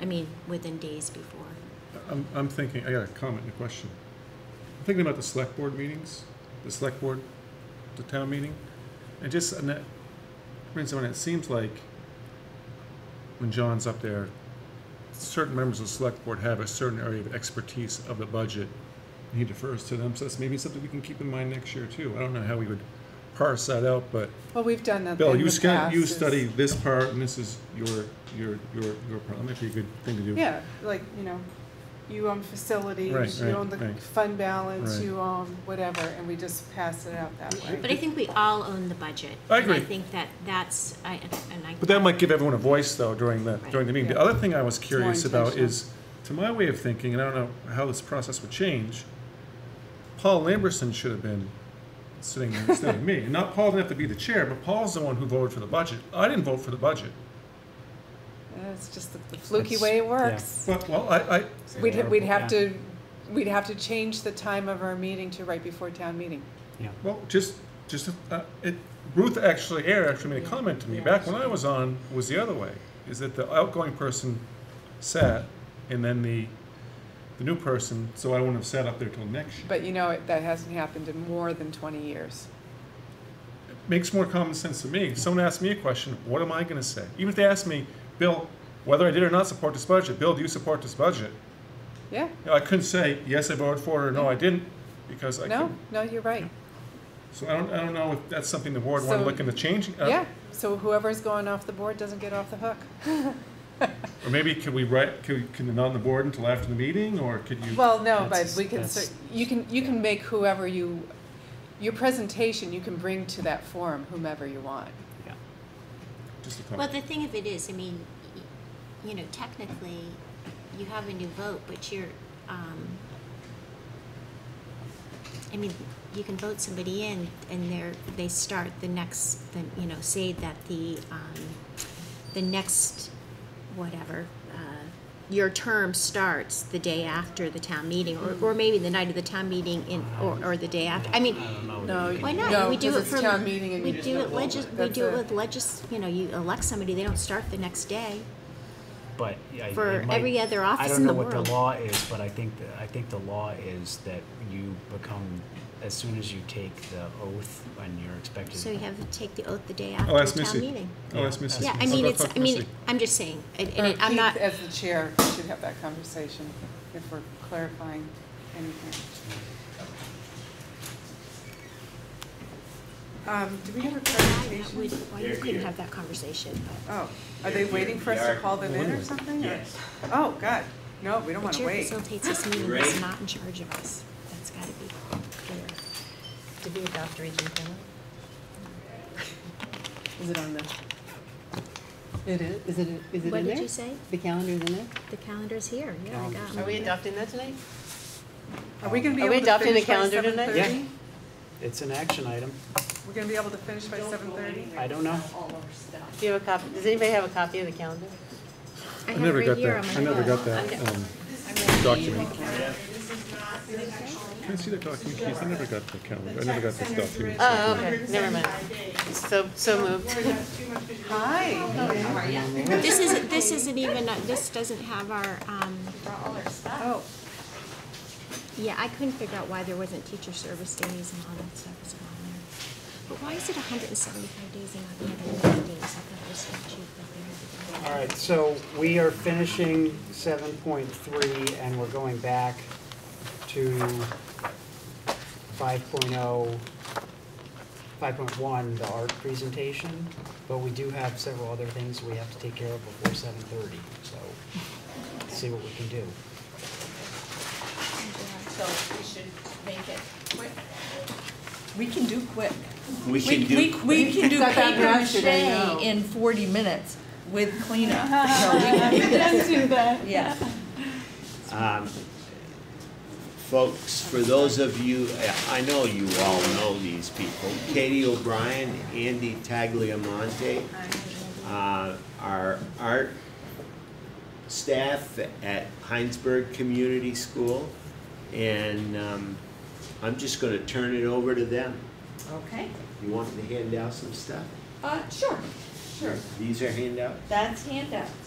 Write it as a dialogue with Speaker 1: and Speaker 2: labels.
Speaker 1: I mean, within days before.
Speaker 2: I'm, I'm thinking, I got a comment and a question. I'm thinking about the select board meetings, the select board, the town meeting, and just, and that, brings someone, it seems like when John's up there, certain members of the select board have a certain area of expertise of the budget, and he defers to them, so that's maybe something we can keep in mind next year too. I don't know how we would parse that out, but
Speaker 3: Well, we've done that in the
Speaker 2: Bill,
Speaker 3: past.
Speaker 2: you scan, you
Speaker 3: is-
Speaker 2: study this part, and this is your, your, your, your part, that might be a good thing to do.
Speaker 3: Yeah, like, you know, you own
Speaker 2: Right,
Speaker 3: facilities, you
Speaker 2: right,
Speaker 3: own the
Speaker 2: right.
Speaker 3: fund balance,
Speaker 2: Right.
Speaker 3: you own whatever, and we just pass it out that way.
Speaker 1: But I think we all own the budget.
Speaker 2: I
Speaker 1: And I
Speaker 2: agree.
Speaker 1: think that that's, I, and I.
Speaker 2: But that might give everyone a voice, though, during the, during the meeting. The
Speaker 3: Right.
Speaker 2: other thing I was
Speaker 3: more
Speaker 2: curious about
Speaker 3: intentional.
Speaker 2: is, to my way of thinking, and I don't know how this process would change, Paul Lamberson should have been sitting there instead of me. And not, Paul didn't have to be the chair, but Paul's the one who voted for the budget. I didn't vote for the budget.
Speaker 3: It's just the the fluky
Speaker 4: That's-
Speaker 3: way it
Speaker 4: yeah.
Speaker 3: works.
Speaker 2: But, well, I, I,
Speaker 3: We'd, ha- we'd have
Speaker 4: Yeah.
Speaker 3: to, we'd have to change the time of our meeting to right before town meeting.
Speaker 4: Yeah,
Speaker 2: well, just, just, uh, it, Ruth actually, Air actually made a comment to me. Back when I was on, was the other way, is that the outgoing person sat, and then the, the new person, so I wouldn't have sat up there till next year.
Speaker 3: But you know, it- that hasn't happened in more than twenty years.
Speaker 2: makes more common sense to me. If someone asks me a question, what am I going to say? Even if they ask me, Bill, whether I did or not support this budget, Bill, do you support this budget?
Speaker 3: Yeah,
Speaker 2: You know, I couldn't say yes, I voted for it, or no, I didn't, because I
Speaker 3: no,
Speaker 2: couldn't.
Speaker 3: no, you're right.
Speaker 2: So I don't, I don't know if that's something the board want
Speaker 3: So-
Speaker 2: to look into changing. uh,
Speaker 3: Yeah, so whoever's going off the board doesn't get off the hook.
Speaker 2: Or maybe can we write? Can, we, can it not on the board until after the meeting, or could you?
Speaker 3: Well, no, but
Speaker 4: That's-
Speaker 3: we can,
Speaker 4: that's-
Speaker 3: cer- you can, you can make whoever you, your presentation, you can bring to that forum whomever you want.
Speaker 4: yeah.
Speaker 2: just a
Speaker 1: Well,
Speaker 2: comment.
Speaker 1: the thing of it is, I mean, y- you know, technically, you have a new vote, but you're, um, I mean, you can vote somebody in and they're, they start the next, then, you know, say that the, um, the next, whatever, uh, your term starts the day after the town meeting, or, or maybe the night of the town meeting in, or, or the day after, I mean,
Speaker 4: I don't know. that
Speaker 3: No,
Speaker 4: you can
Speaker 1: why
Speaker 4: do
Speaker 1: not?
Speaker 3: No,
Speaker 1: we do
Speaker 3: 'cause
Speaker 1: it
Speaker 3: it's
Speaker 1: from
Speaker 3: town meeting and
Speaker 1: we
Speaker 3: you just
Speaker 1: do
Speaker 3: don't
Speaker 1: it
Speaker 3: vote.
Speaker 1: legis- we
Speaker 3: That's
Speaker 1: do it
Speaker 3: it.
Speaker 1: with legis- you know, you elect somebody, they don't start the next day.
Speaker 4: that, But. yeah, it
Speaker 1: for
Speaker 4: might-
Speaker 1: every other office in the
Speaker 4: I don't know what
Speaker 1: world.
Speaker 4: the law is, but I think, that- I think the law is that you become, as soon as you take the oath and you're expected.
Speaker 1: So you have to take the oath the day after
Speaker 2: I'll Oh, ask
Speaker 1: the town
Speaker 2: Missy.
Speaker 1: meeting.
Speaker 2: I'll ask Missy.
Speaker 1: Yeah, I
Speaker 2: I'll
Speaker 1: mean,
Speaker 2: go
Speaker 1: it's,
Speaker 2: talk
Speaker 1: I
Speaker 2: to
Speaker 1: mean,
Speaker 2: Missy.
Speaker 1: I'm just saying, and, and
Speaker 3: Or
Speaker 1: it- I'm
Speaker 3: Keith,
Speaker 1: not,
Speaker 3: As the chair, we should have that conversation if we're clarifying anything. Um, do we have a
Speaker 1: why that
Speaker 3: presentation?
Speaker 1: would- why you couldn't have that conversation, but.
Speaker 3: Oh, are they waiting for us to call them in or something? or-
Speaker 5: Yes.
Speaker 3: Oh, God, no, we don't
Speaker 1: The
Speaker 3: want to
Speaker 1: chair
Speaker 3: wait.
Speaker 1: facilitates this meeting,
Speaker 5: You
Speaker 1: is
Speaker 5: ready?
Speaker 1: not in charge of us. That's gotta be clear.
Speaker 6: Did we adopt Region Four?
Speaker 7: Is it on the? It is, is it, is it in there?
Speaker 1: What did you say?
Speaker 7: The calendar's in there?
Speaker 1: The calendar's here, yeah, I got
Speaker 6: Are we
Speaker 1: mine.
Speaker 6: adopting that tonight?
Speaker 3: Are we going to be
Speaker 6: Are we
Speaker 3: able to
Speaker 6: adopting the
Speaker 3: finish by
Speaker 6: calendar
Speaker 3: seven
Speaker 6: tonight?
Speaker 3: thirty?
Speaker 4: Yeah, it's an action item.
Speaker 3: We're going to be able to finish by seven thirty?
Speaker 4: I don't know.
Speaker 6: Do you have a copy, does anybody have a copy of the calendar?
Speaker 1: I
Speaker 2: I
Speaker 1: have
Speaker 2: never
Speaker 1: it
Speaker 2: got
Speaker 1: right here on
Speaker 2: that.
Speaker 1: my
Speaker 2: I never
Speaker 1: phone.
Speaker 2: got that um, document. Can I see that document, Keith? I never got the calendar. I never got this document.
Speaker 1: Uh,
Speaker 6: Oh, okay, never mind. So, so moved.
Speaker 3: Hi,
Speaker 1: This isn't, this isn't even, uh, this doesn't have our, um,
Speaker 3: oh,
Speaker 1: yeah, I couldn't figure out why there wasn't teacher service days and all that stuff is on there. But why is it hundred and seventy-five days and not the other ninety days? I thought it was statute, but
Speaker 4: All right, so we are finishing seven point three and we're going back to five point oh, five point one, the art presentation. But we do have several other things we have to take care of before seven thirty, so see what we can do.
Speaker 8: So we should make it quick.
Speaker 7: We can do quick.
Speaker 5: We should do.
Speaker 9: We, we can do
Speaker 7: Cut that
Speaker 9: paper
Speaker 7: ratchet, I know.
Speaker 9: mache in forty minutes with cleanup, so we can do that. Yeah.
Speaker 5: Um, Folks, for those of you, I know you all know these people, Katie O'Brien, Andy Tagliamonte, uh, our art staff at Heinsberg Community School, and um, I'm just gonna turn it over to them.
Speaker 8: Okay.
Speaker 5: You want me to hand out some stuff?
Speaker 8: Uh, sure, sure.
Speaker 5: These are handouts?
Speaker 8: That's handout.